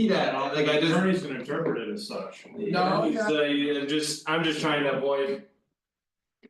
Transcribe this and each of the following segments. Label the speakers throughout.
Speaker 1: see that,
Speaker 2: Yeah,
Speaker 1: like I
Speaker 2: The
Speaker 1: just,
Speaker 2: attorney's gonna interpret it as such.
Speaker 1: no,
Speaker 3: yeah.
Speaker 1: so you just, I'm just trying to avoid.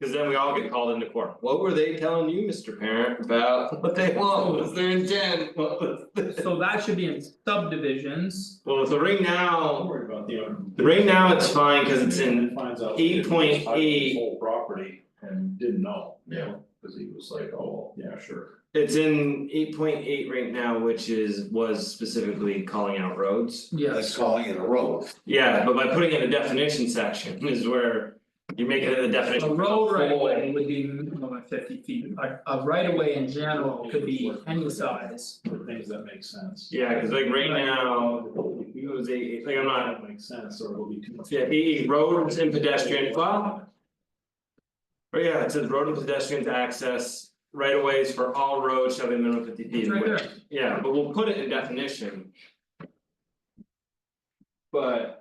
Speaker 1: Cause then we all get called into court, what were they telling you, Mr. Parent, about what they want, what was their intent, what was the-
Speaker 4: So that should be in subdivisions,
Speaker 1: Well, so right
Speaker 2: Don't
Speaker 1: now,
Speaker 2: worry about the owner.
Speaker 1: right now it's fine, cause it's in,
Speaker 2: Finds out.
Speaker 1: 8.8.
Speaker 2: he Whole property and didn't know, you know, cause he was like, oh, yeah, sure.
Speaker 1: it's in eight point eight right now, which is, was specifically calling out roads.
Speaker 4: yes,
Speaker 3: That's calling it a road.
Speaker 1: Yeah, but by putting in a definition section is where you make it a definition.
Speaker 4: a road right of way would be minimum of fifty feet, a a right of way in general could be any size.
Speaker 2: For things that make sense.
Speaker 1: Yeah, cause like right now,
Speaker 2: If
Speaker 1: it was a, like I'm not,
Speaker 2: That makes sense, or it'll be too much.
Speaker 1: yeah, E roads and pedestrian, well. But yeah, it says road and pedestrians access right of ways for all roads shall be minimum fifty feet.
Speaker 4: It's right
Speaker 1: which-
Speaker 4: there,
Speaker 1: Yeah, but we'll put it in definition. But.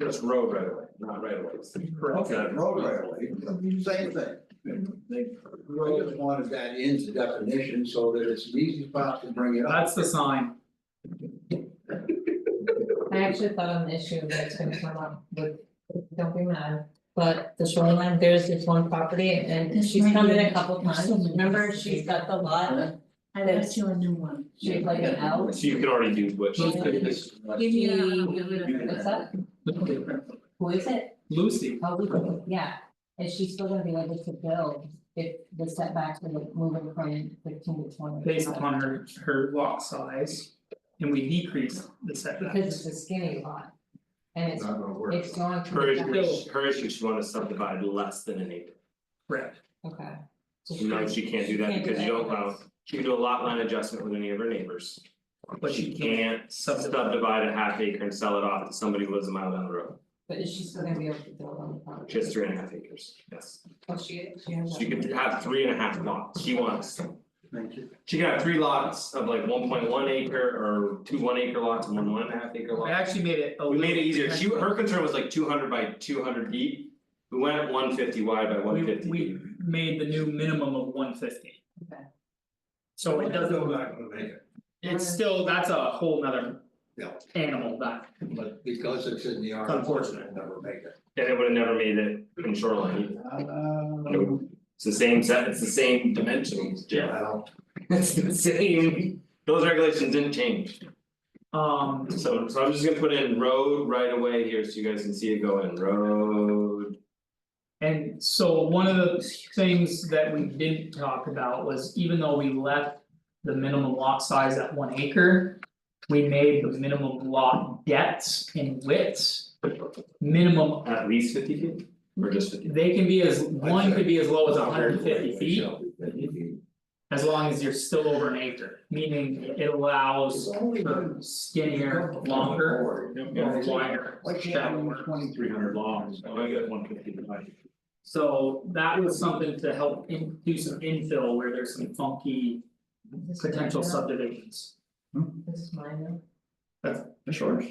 Speaker 1: Just road right of way, not right of ways.
Speaker 4: correct,
Speaker 3: Road right away, same thing. I just wanted that into definition so that it's an easy spot to bring it up.
Speaker 4: that's the sign,
Speaker 5: I actually thought on the issue that's gonna come up with, don't be mad, but the shoreline, there's this one property and
Speaker 6: This
Speaker 5: she's
Speaker 6: might
Speaker 5: come
Speaker 6: be-
Speaker 5: in a couple
Speaker 6: there's
Speaker 5: times,
Speaker 6: so many
Speaker 5: remember,
Speaker 6: different
Speaker 5: she's got the lot,
Speaker 6: I got you a new one.
Speaker 5: she's like an L.
Speaker 1: So you can already do which.
Speaker 4: Those
Speaker 3: It's-
Speaker 6: Give me that, I'll get rid of it.
Speaker 5: What's up, who is it,
Speaker 4: Lucy,
Speaker 5: oh, we- yeah, and she's still gonna be able to build if the setbacks are like moving from fifteen to twenty.
Speaker 4: based upon her her lot size. And we decrease the
Speaker 5: Because it's
Speaker 4: setbacks,
Speaker 5: a skinny lot. And it's
Speaker 3: Not gonna work.
Speaker 5: it's going to.
Speaker 1: Her issue,
Speaker 4: Still-
Speaker 1: her issue, she wanna subdivide less than an acre,
Speaker 4: correct,
Speaker 5: Okay. So
Speaker 1: no, she can't do that
Speaker 5: can't do
Speaker 1: because you don't
Speaker 5: that.
Speaker 1: allow, she can do a lot line adjustment with any of her neighbors.
Speaker 4: but she can't subdivide.
Speaker 1: Subdivide a half acre and sell it off to somebody who lives a mile down the road,
Speaker 5: But is she still gonna be able to build on the property?
Speaker 1: she has three and a half acres, yes,
Speaker 5: Oh, she she has.
Speaker 1: she
Speaker 5: that.
Speaker 1: could have three and a half lots, she wants.
Speaker 3: Thank you.
Speaker 1: She can have three lots of like one point one acre or two one acre lots and one one and a half acre
Speaker 4: I
Speaker 1: lot.
Speaker 4: actually made it a
Speaker 1: We
Speaker 4: little.
Speaker 1: made it easier, she, her concern was like two hundred by two hundred deep, we went one fifty wide by one
Speaker 4: We
Speaker 1: fifty.
Speaker 4: we made the new minimum of one fifty.
Speaker 5: Okay.
Speaker 4: So it doesn't,
Speaker 3: Still not gonna make it,
Speaker 4: it's still, that's a whole nother.
Speaker 3: Yeah.
Speaker 4: Animal that,
Speaker 3: but because it's in the R.
Speaker 4: Unfortunate.
Speaker 3: it'll Never make it.
Speaker 1: And it would have never made it in shoreline either.
Speaker 3: Um,
Speaker 1: It's the same set, it's the same dimensions, Jeff.
Speaker 3: well,
Speaker 1: It's the same, those regulations didn't change,
Speaker 4: um,
Speaker 1: so so I'm just gonna put in road right away here, so you guys can see it go in road.
Speaker 4: and so one of the things that we didn't talk about was even though we left. The minimum lot size at one acre. We made the minimum lot depths and widths. Minimum,
Speaker 1: At least fifty feet, or just fifty?
Speaker 4: they can be as, one could be as low as hundred and fifty
Speaker 3: it
Speaker 4: feet,
Speaker 3: shall be 50 feet.
Speaker 4: as long as you're still over an acre, meaning it allows.
Speaker 3: It's only
Speaker 4: for
Speaker 3: been-
Speaker 4: skinnier, longer, or wider,
Speaker 3: Like she had
Speaker 4: shallower.
Speaker 2: Three hundred long, so I got
Speaker 1: Okay.
Speaker 2: one fifty wide.
Speaker 4: So that was something to help in, do some infill where there's some funky
Speaker 5: This is
Speaker 4: potential
Speaker 5: minor.
Speaker 4: subdivisions.
Speaker 5: This is minor,
Speaker 4: Sure.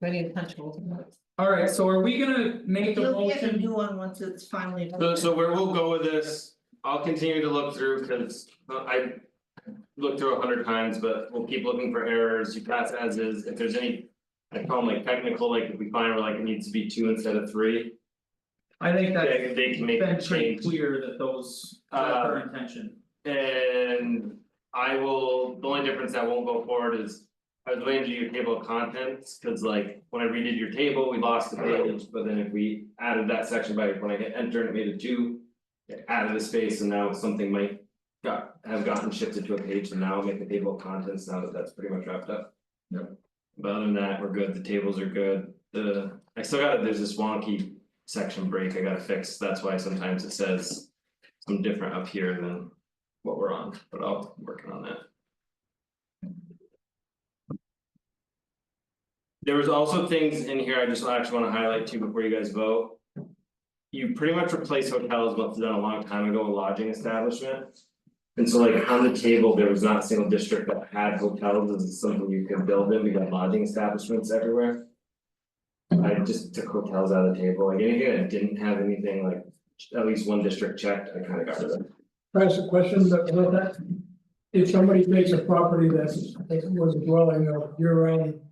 Speaker 5: ready to punch holes in it.
Speaker 4: Alright, so are we gonna make a
Speaker 6: You'll get a
Speaker 4: motion?
Speaker 6: new one once it's finally.
Speaker 1: So so where we'll go with this, I'll continue to look through, cause uh, I. Looked through a hundred times, but we'll keep looking for errors, you pass as is, if there's any. I call them like technical, like if we find where like it needs to be two instead of three,
Speaker 4: I think that's
Speaker 1: they they can make
Speaker 4: been
Speaker 1: a
Speaker 4: pretty
Speaker 1: change.
Speaker 4: clear that those, that's our
Speaker 1: Uh,
Speaker 4: intention.
Speaker 1: And I will, the only difference that won't go forward is. I was waiting to your table of contents, cause like when I redid your table, we lost the page, but then if we added that section by when I hit enter and it made a two. It added a space and now something might got have gotten shifted to a page and now make the table of contents now that that's pretty much wrapped up. Yep. But other than that, we're good, the tables are good, the, I still got, there's this wonky section break I gotta fix, that's why sometimes it says. Some different up here than what we're on, but I'll working on that. There was also things in here I just actually wanna highlight too before you guys vote. You pretty much replace hotels, what's done a long time ago, with lodging establishment. And so like on the table, there was not a single district that had hotels, this is something you can build in, we got lodging establishments everywhere. I just took hotels out of the table, like anything that didn't have anything like, at least one district checked, I kinda got rid of.
Speaker 7: Can I ask a question about that? if somebody takes a property that's, that was a dwelling or year round